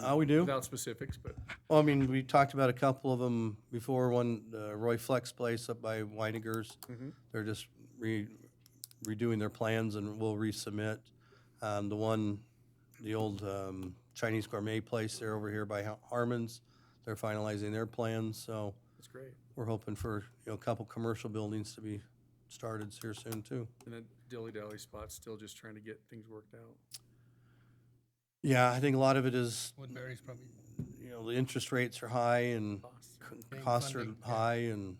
Oh, we do? Without specifics, but Well, I mean, we talked about a couple of them before, one, uh, Roy Flex Place up by Weinigers. Mm-hmm. They're just re- redoing their plans and will resubmit. Um, the one, the old, um, Chinese Gourmet Place, they're over here by Ha- Harmon's, they're finalizing their plans, so it's great. we're hoping for, you know, a couple commercial buildings to be started here soon too. And that dilly dally spot's still just trying to get things worked out. Yeah, I think a lot of it is, Woodbury's Mm-hmm. probably, you know, the interest rates are high and Costs. c- Being costs are funding, yeah. high and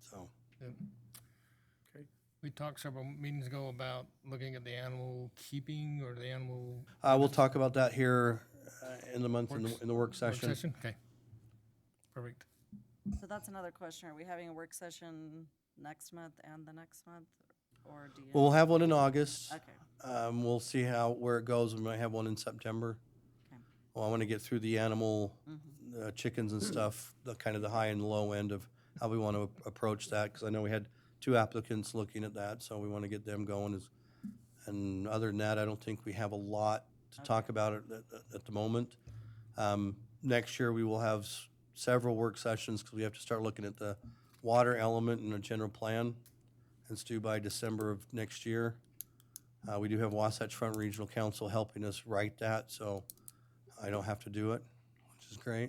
so. yeah. Okay. we talked several meetings ago about looking at the animal keeping or the animal Uh, we'll talk about that here uh, in the month, in the, Works- in the work work session. session? Okay. Perfect. So that's another question. Are we having a work session next month and the next month? Or do you? We'll have one in August. Okay. Um, we'll see how, where it goes. We might have one in September. Okay. Well, I want to get through the animal, mm-hmm. uh, chickens and stuff, the kind of the high and low end of how we want to approach that, because I know we had two applicants looking at that, so we want to get them going. as- And other than that, I don't think we have a lot to talk about at, at- at the moment. Um, next year, we will have s- several work sessions, because we have to start looking at the water element in the general plan. It's due by December of next year. Uh, we do have Wasatch Front Regional Council helping us write that, so I don't have to do it, which is great.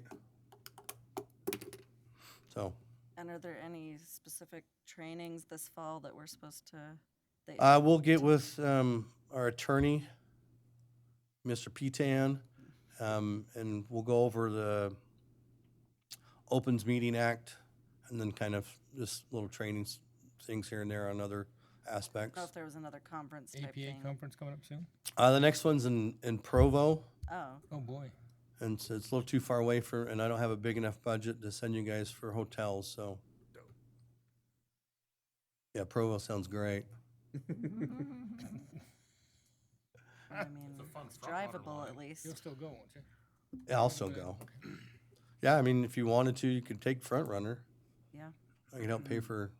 So, And are there any specific trainings this fall that we're supposed to? that- uh, we'll get with, um, our attorney, Mr. Petan, um, and we'll go over the Opens Meeting Act and then kind of just little trainings, things here and there on other I don't know if aspects. there was another conference type APA thing. conference coming up soon? Uh, the next one's in, in Provo. Oh, Oh, boy. And so it's a little too far away for, and I don't have a big enough budget to send you guys for hotels, so. Yeah, Provo sounds great. I mean, it's drivable at least. You'll still go, won't you? Yeah, I'll still go. Yeah, I mean, if you wanted to, you could take Front Runner. Yeah. I can help pay for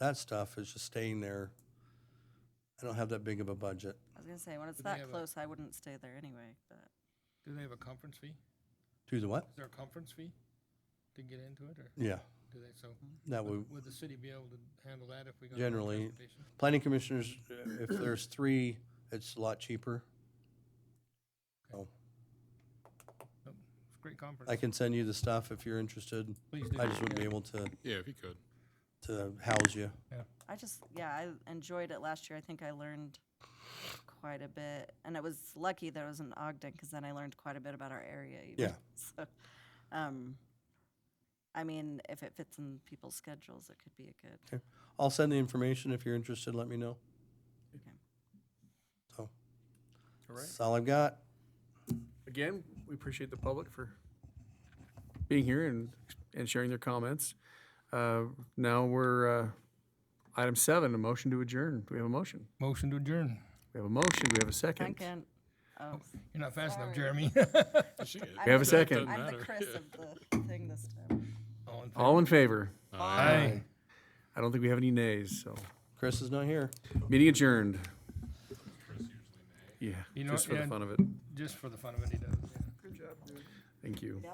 that stuff. It's just staying there. I don't have that big of a budget. I was gonna say, when it's Do they that have a- close, I wouldn't stay there anyway, but Do they have a conference fee? Do the what? Is there a conference fee to get into it, or Yeah, do they, so, that would, would would the city be able to handle that if we got? a Mm-hmm. Generally, transportation? planning commissioners, uh, if there's three, it's a lot cheaper. Nope. It's a Great conference. I can send you the stuff if you're interested. Please do. I just wouldn't be Yeah. able to, Yeah, if you could. to house you. I just, yeah, I enjoyed it last year. I think I learned quite a bit. And it was lucky that it was in Ogden because then I learned quite a bit about our area. Even. Yeah. So, um, I mean, if it fits in people's schedules, it could be a good. I'll send the information. If you're interested, let me know. Okay. So, All right. that's all I've got. Again, we appreciate the public for being here and, and sharing their comments. Uh, Now we're, uh, item seven, a motion to adjourn. Do we have a motion? Motion to adjourn. We have a motion. Do we have a second? Duncan, oh, You're not fast enough, Sorry. Jeremy. We have a second. I'm the Chris of the thing this time. All in favor? All in favor? Uh, Aye. I don't think we have any nays, so. Chris is not here. Meeting adjourned. Yeah, You know just what, for the Ed? fun of it. Just for the fun of it, he does. yeah. Thank you.